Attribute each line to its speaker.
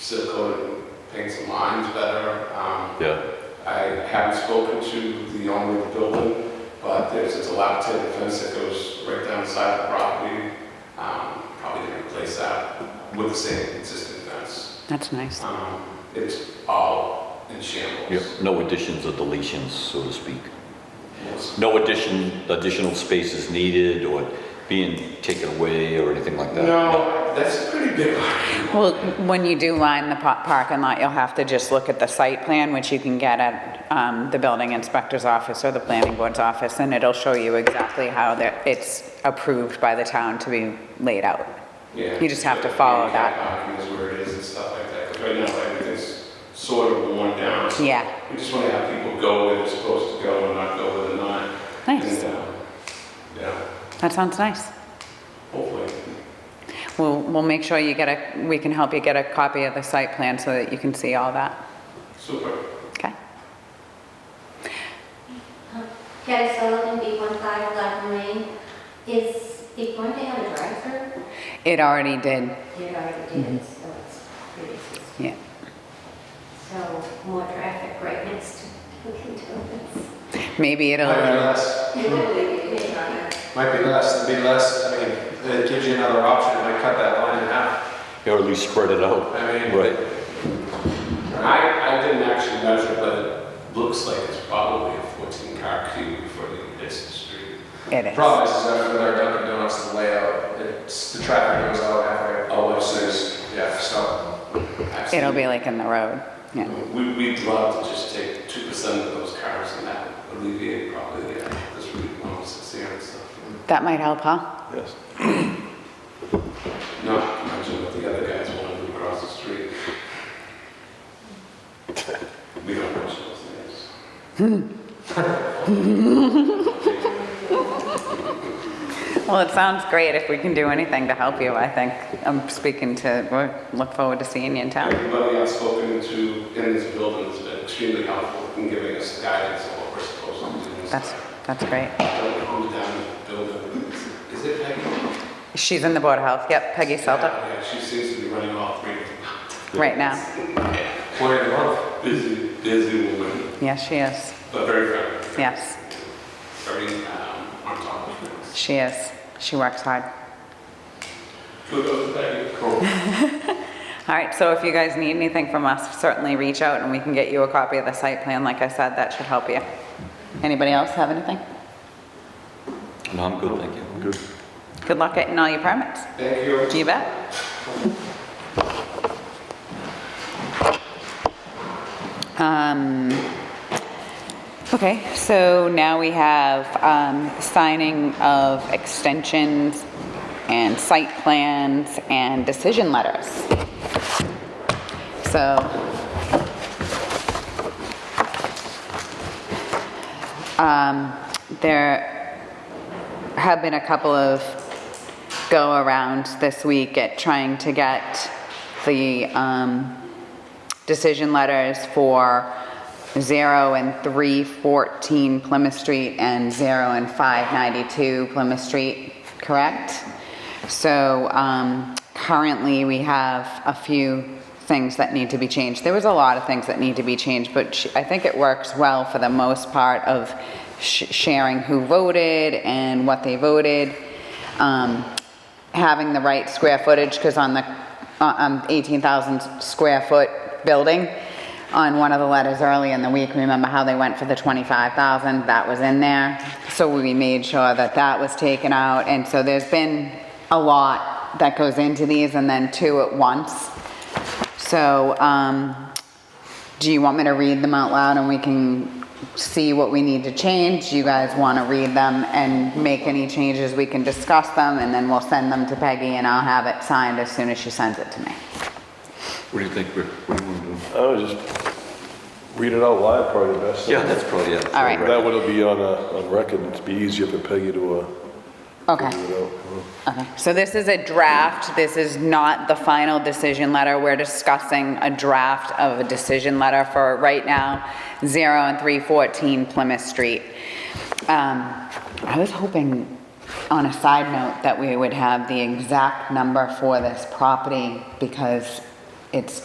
Speaker 1: seal coat it, paint some lines better. Um,
Speaker 2: Yeah,
Speaker 1: I haven't spoken to the owner of the building, but there's a dilapidated fence that goes right down the side of the property. Um, Probably gonna replace that with the same existing fence.
Speaker 3: That's nice.
Speaker 1: Um, It's all in shambles.
Speaker 2: yeah, no additions or deletions, so to speak.
Speaker 1: Most-
Speaker 2: No addition, additional space is needed or being taken away or anything like that?
Speaker 1: No, that's a pretty big one.
Speaker 3: Well, when you do line the pa- parking lot, you'll have to just look at the site plan, which you can get at um, the building inspector's office or the planning board's office, and it'll show you exactly how that it's approved by the town to be laid out.
Speaker 1: Yeah.
Speaker 3: You just have to follow that.
Speaker 1: Parking is where it is and stuff like that. 'Cause Right now, everything's sort of worn down.
Speaker 3: Yeah,
Speaker 1: We just want to have people go where they're supposed to go and not go where they're not.
Speaker 3: Nice.
Speaker 1: And, um, Yeah,
Speaker 3: that sounds nice.
Speaker 1: hopefully.
Speaker 3: We'll, we'll make sure you get a, we can help you get a copy of the site plan so that you can see all that,
Speaker 1: Super.
Speaker 3: okay?
Speaker 4: Kelly Sullivan, B15 Black Lane. Is it going to have a drive-through?
Speaker 3: It already did,
Speaker 4: It already did, so it's pretty easy.
Speaker 3: yeah.
Speaker 4: So more traffic right next to Dunkin' Donuts.
Speaker 3: Maybe it'll.
Speaker 5: Might be less, might be less, it'd be less, I mean, it gives you another option, it might cut that line in half.
Speaker 2: Or at least spread it out,
Speaker 5: I mean,
Speaker 2: right?
Speaker 1: I, I didn't actually measure, but it looks like it's probably a 14 car queue for the business street.
Speaker 3: It
Speaker 5: the
Speaker 3: is.
Speaker 5: problem is, is that with our Dunkin' Donuts, the layout, it's, the traffic goes out halfway.
Speaker 1: Oh, I
Speaker 5: it's
Speaker 1: see.
Speaker 5: Yeah, so,
Speaker 1: I've
Speaker 3: It'll
Speaker 1: seen-
Speaker 3: be like in the road, yeah.
Speaker 1: We, we'd love to just take 2% of those cars and that would alleviate probably the, this route 160 and stuff.
Speaker 3: That might help, huh?
Speaker 2: Yes.
Speaker 1: Not to mention what the other guys wanted to cross the street. We don't mention those names.
Speaker 3: Well, it sounds great if we can do anything to help you, I think. I'm speaking to, we look forward to seeing you in town.
Speaker 1: Everybody I've spoken to in this building has been extremely helpful in giving us guidance on what we're supposed to do.
Speaker 3: That's, that's great.
Speaker 1: Don't go down the building. Is it Peggy?
Speaker 3: She's in the Board of Health, yep, Peggy Selda,
Speaker 1: Yeah, she seems to be running all three. of them.
Speaker 3: right now.
Speaker 5: employee of the month.
Speaker 1: Busy, busy woman,
Speaker 3: Yes, she is,
Speaker 1: but very friendly,
Speaker 3: yes,
Speaker 1: very um, on top of things.
Speaker 3: she is. She works hard.
Speaker 1: Who goes to Peggy? Cool.
Speaker 3: All right, so if you guys need anything from us, certainly reach out and we can get you a copy of the site plan. Like I said, that should help you. Anybody else have anything?
Speaker 2: No, I'm good, thank you. Good.
Speaker 3: Good luck getting all your permits.
Speaker 1: Thank you.
Speaker 3: You bet. Um, Okay, so now we have um, signing of extensions and site plans and decision letters. So um, there have been a couple of go around this week at trying to get the um, decision letters for 0 and 314 Plymouth Street and 0 and 592 Plymouth Street, correct? So um, currently, we have a few things that need to be changed. There was a lot of things that need to be changed, but sh- I think it works well for the most part of sh- sharing who voted and what they voted um, having the right square footage, because on the, uh, um, 18,000 square foot building, on one of the letters early in the week, remember how they went for the 25,000, that was in there. So we made sure that that was taken out, and so there's been a lot that goes into these, and then two at once. So, um, do you want me to read them out loud and we can see what we need to change? You guys want to read them and make any changes, we can discuss them, and then we'll send them to Peggy and I'll have it signed as soon as she sends it to me.
Speaker 2: What do you think, Rick? What do you want to do?
Speaker 6: I would just read it out loud, probably the best.
Speaker 2: Yeah, that's probably, yeah.
Speaker 3: All right.
Speaker 6: That would be on, uh, on record, it'd be easier for Peggy to, uh,
Speaker 3: Okay.
Speaker 6: figure it out.
Speaker 3: Okay, so this is a draft, this is not the final decision letter, we're discussing a draft of a decision letter for, right now, 0 and 314 Plymouth Street. Um, I was hoping, on a side note, that we would have the exact number for this property, because it's